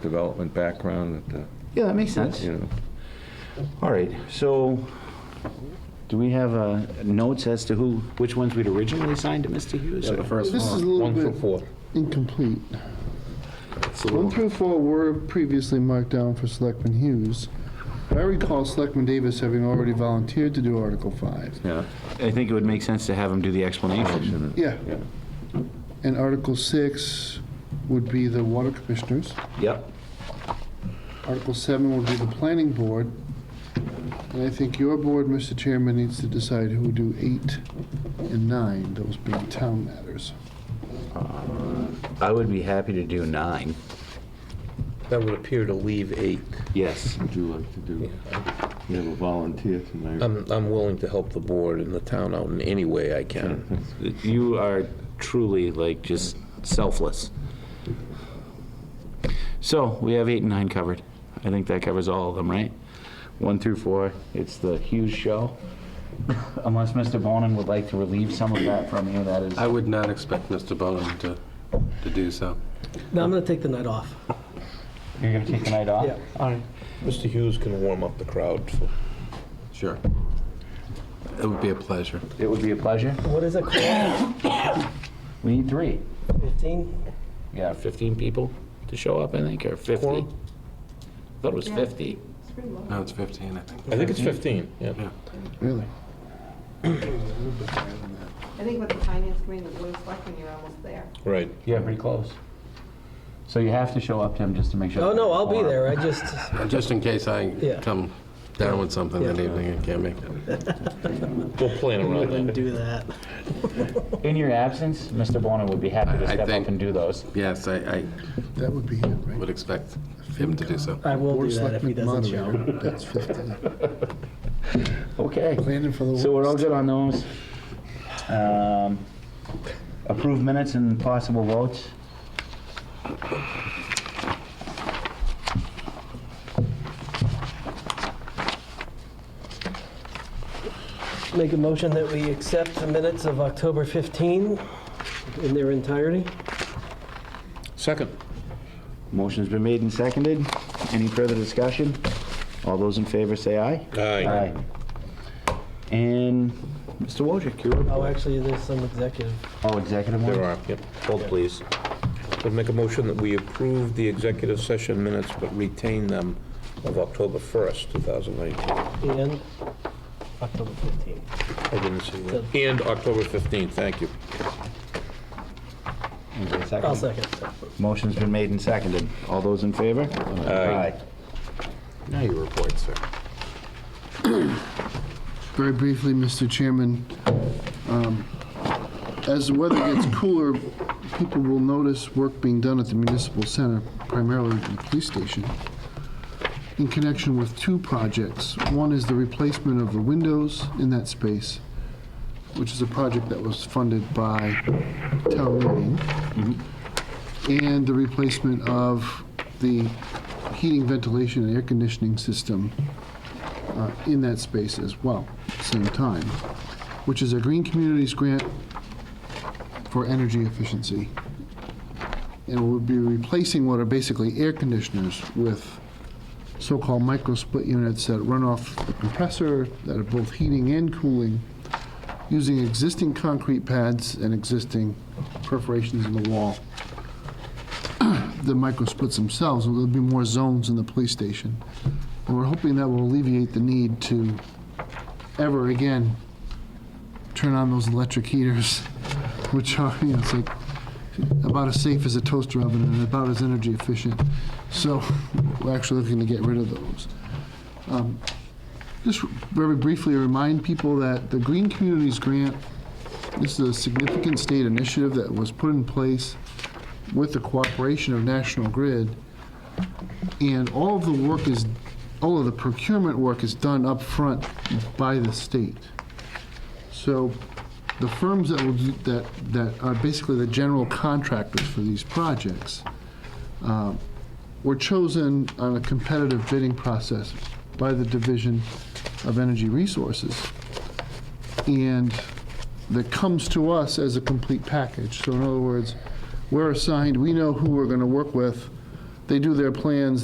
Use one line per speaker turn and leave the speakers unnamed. development background that, uh,
Yeah, that makes sense.
you know.
All right, so do we have uh, notes as to who, which ones we'd originally signed to Mr. Hughes? or-
This is a little bit incomplete. One through four were previously marked down for Selectman Hughes. I recall Selectman Davis having already volunteered to do Article 5.
Yeah.
I think it would make sense to have him do the explanation.
Yeah.
Yeah.
And Article 6 would be the water commissioners.
Yep.
Article 7 would be the planning board. And I think your board, Mr. Chairman, needs to decide who would do 8 and 9, those being town matters.
I would be happy to do nine.
That would appear to leave eight.
Yes.
Would you like to do, you have a volunteer tonight?
I'm, I'm willing to help the board and the town out in any way I can.
You are truly like just selfless. So we have eight and nine covered. I think that covers all of them, right? One through four, it's the Hughes show. Unless Mr. Bonin would like to relieve some of that from you, that is.
I would not expect Mr. Bowen to, to do so.
No, I'm going to take the night off.
You're gonna take the night off?
Yeah.
All right.
Mr. Hughes can warm up the crowd.
Sure. It would be a pleasure.
It would be a pleasure.
What is it called?
We need three.
15?
Yeah, 15 people to show up, I think, or 50. I
Quorum?
thought it was 50.
No, it's 15, I think.
I think it's 15, yeah.
Really?
I think with the finance committee, and the board of selectmen, you're almost there.
Right.
Yeah, pretty close. So you have to show up, Tim, just to make sure.
Oh, no, I'll be
Quorum.
there. I just,
Just in case I
Yeah.
come down with something that evening and can't make it.
We'll plan
I
around
wouldn't
that.
do that.
In your absence, Mr. Bonin would be happy to
I- I
step up
think-
and do those.
Yes, I, I
That would be it, right?
would expect him to do so.
I will
Board
do
of
that if he
Selectmen
doesn't show.
moderator, that's 15.
Okay.
Planning for the
So we're all good on those. Um, Approved minutes and possible votes.
Make a motion that we accept the minutes of October 15 in their entirety.
Second.
Motion's been made and seconded. Any further discussion? All those in favor say aye.
Aye.
And Mr. Wojcik, your
Oh,
report.
actually, there's some executive.
Oh, executive one?
There are, yep. Hold, please. We'll make a motion that we approve the executive session minutes, but retain them of October 1st, 2019.
And October 15.
I didn't see that. And October 15th, thank you.
Is there a second?
I'll second.
Motion's been made and seconded. All those in favor?
Aye.
Now you report, sir.
Very briefly, Mr. Chairman, um, as the weather gets cooler, people will notice work being done at the municipal center, primarily the police station, in connection with two projects. One is the replacement of the windows in that space, which is a project that was funded by town meeting, and the replacement of the heating, ventilation, and air conditioning system uh, in that space as well, same time, which is a Green Communities grant for energy efficiency. And we'll be replacing what are basically air conditioners with so-called micro-split units that run off the compressor, that are both heating and cooling, using existing concrete pads and existing perforations in the wall. The micro-splits themselves, there'll be more zones in the police station. And we're hoping that will alleviate the need to ever again turn on those electric heaters, which are, you know, it's like about as safe as a toaster oven and about as energy efficient. So we're actually looking to get rid of those. Um, Just very briefly remind people that the Green Communities Grant, this is a significant state initiative that was put in place with the cooperation of National Grid. And all of the work is, all of the procurement work is done up front by the state. So the firms that will, do- that, that are basically the general contractors for these projects uh, were chosen on a competitive bidding process by the Division of Energy Resources. And that comes to us as a complete package. So in other words, we're assigned, we know who we're going to work with, they do their plans,